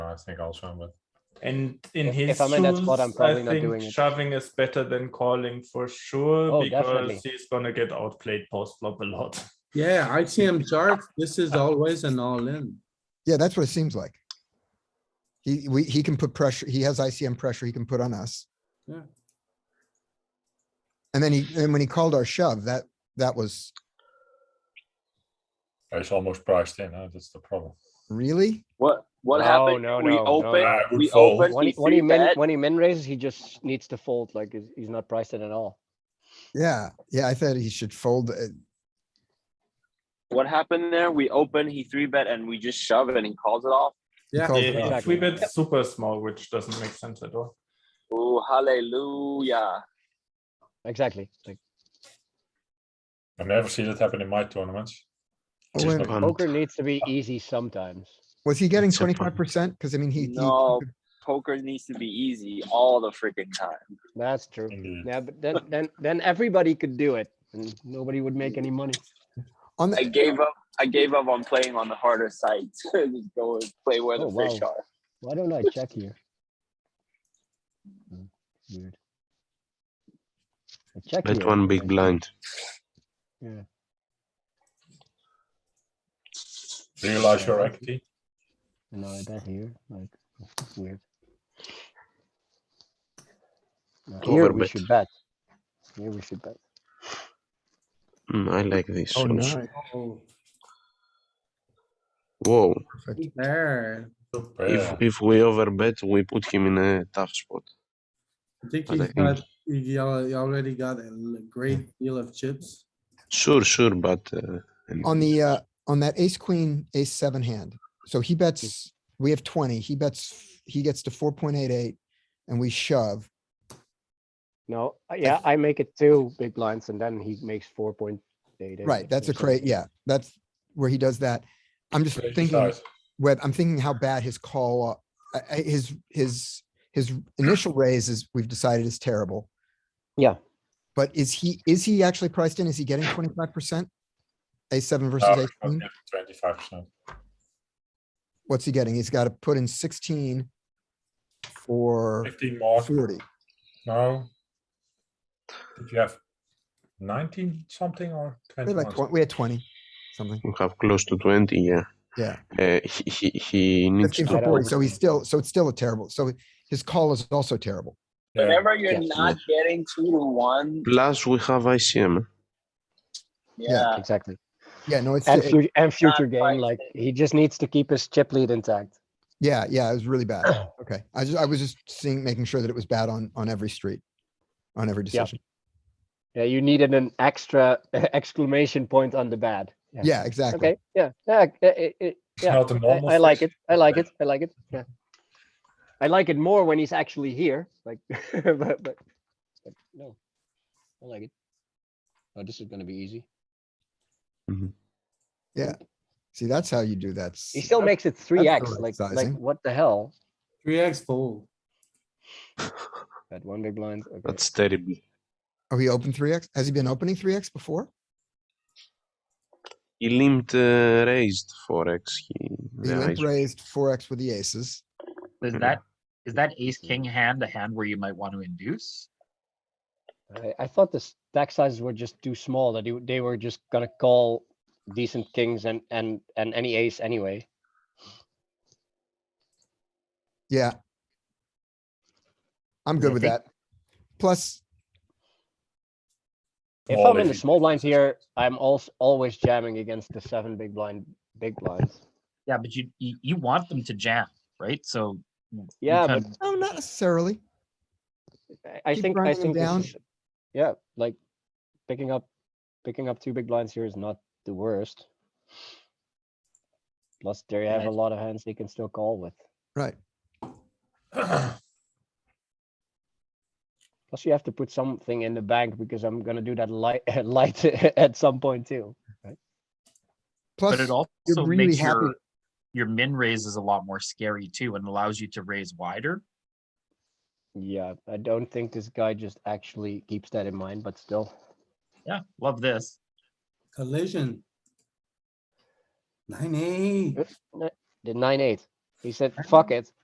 I think also I'm with. And in If- his if I'm in that spot, I'm shoes, probably I not think doing it. shoving is better than calling for sure Oh, because definitely. he's gonna get outplayed post flop a lot. Yeah, ICM charts, this is always an all in. Yeah, that's what it seems like. He, we, he can put pressure, he has ICM pressure he can put on us. Yeah. And then he, and when he called our shove, that, that was It's almost priced in. Huh? That's the problem. really? What what No, happened? no, we no, no. open. I would We fold. open. When we he, when he see min, bet. when he min raises, he just needs to fold, like, he's, he's not priced in at all. Yeah, yeah, I thought he should fold. uh, it. What happened there? We open. He three bet, and we just shove it, and he calls it off. He Oh, Yeah. called it Yeah, off. three bet super small, which doesn't make sense at all. Oh, hallelujah! Exactly, like, I've never seen it happen in my tournaments. Oh, Just and one. poker needs to be easy sometimes. Was he getting It's a point. twenty-five percent? Cause I mean, he. he- No. Poker needs to be easy all the freaking time. That's true. Indeed. Yeah, but then, then, then everybody could do it and nobody would make any money. On I the, gave up. I gave up on playing on the harder sites. just go and play where the Oh, fish wow. are. Why don't I check here? Hmm, Weird. I check Bet here, one I big think. blind. Yeah. Realize your equity. No, I bet here, like, it's weird. Now, Here we Overbet. should bet. Here we should bet. Mm, I like this. oh, also. nice. Oh, Whoa! Perfect. There, Super. If if we overbet, we put him in a tough spot. I think But I he's think- got, he al- he already got a l- great deal of chips. Sure, sure, but uh, and- On the, uh, on that ace, queen, ace seven hand. So he bets, we have twenty, he bets, he gets to four point eight eight and we shove. No, uh, yeah, I make it two big blinds and then he makes four point eight. Right, that's a cra, yeah, that's where he does that. I'm just Crazy thinking, size. Web, I'm thinking how bad his call, uh, I- I- his, his, his initial raise is, we've decided is terrible. Yeah. But is he, is he actually priced in? Is he getting twenty-five percent? A seven versus No, a queen? Ah, Twenty-five percent. What's he getting? He's got to put in sixteen for Fifteen more. forty. No. Did you have nineteen something or We had twenty? like, twen- we had twenty, something, we have close to twenty. Yeah. yeah. Uh, he, he he needs Fifteen to. for I don't forty, so he's still, so it's still a terrible, so his call is also terrible. Yeah, Whenever you're Yeah. not getting two to one, Plus, we have ICM. yeah, Exactly. Yeah, no, it's. And it- future, and future quite game, like, he just needs to keep his chip lead intact. Yeah, yeah, it was really bad. Okay, I just, I was just seeing, making sure that it was bad on, on every street, on every Yeah. decision. Yeah, you needed an extra exclamation point on the bad. Yeah, exactly. Okay, yeah, yeah, I- I- I- It's yeah. not the I, normal. I like fish. it. I like it. I like it. Yeah. I like it more when he's actually here, like, but, but, but no, I like it. Oh, this is gonna be easy. See, that's how you do that. He still makes it three X, right like, like, sizing. what the hell? Three X fold. That one big blind, okay. That's terrible. Oh, he opened three X? Has he been opening three X before? He limped uh, raised forex. He He the limp raise- raised four X with the aces. Is Mhm. Mm-hmm. that, is that ace king hand the hand where you might want to induce? I, I thought the stack sizes were just too small, that he w- they were just gonna call decent kings and, and, and any ace anyway. Yeah. I'm Yeah, good I with think- that. Plus, If Small I'm in the if- small blinds here, I'm also always jamming against the seven big blind, big blinds. Yeah, but you, you, you want them to jam, right? So. you Yeah, kind but of- no, oh, not necessarily. I- I Keep think, I think grinding them this down. is, yeah, like picking up, picking up two big blinds here is not the worst. Plus, they have Right. a lot of hands they can still call with. Right. Plus, you have to put something in the bank because I'm gonna do that light, light at some point too. Plus, But it also really makes happy- your, your min raises a lot more scary too and allows you to raise wider. Yeah, I don't think this guy just actually keeps that in mind, but still. Yeah, love this. Collision. Nine eight. The nine, eight, he said, fuck it,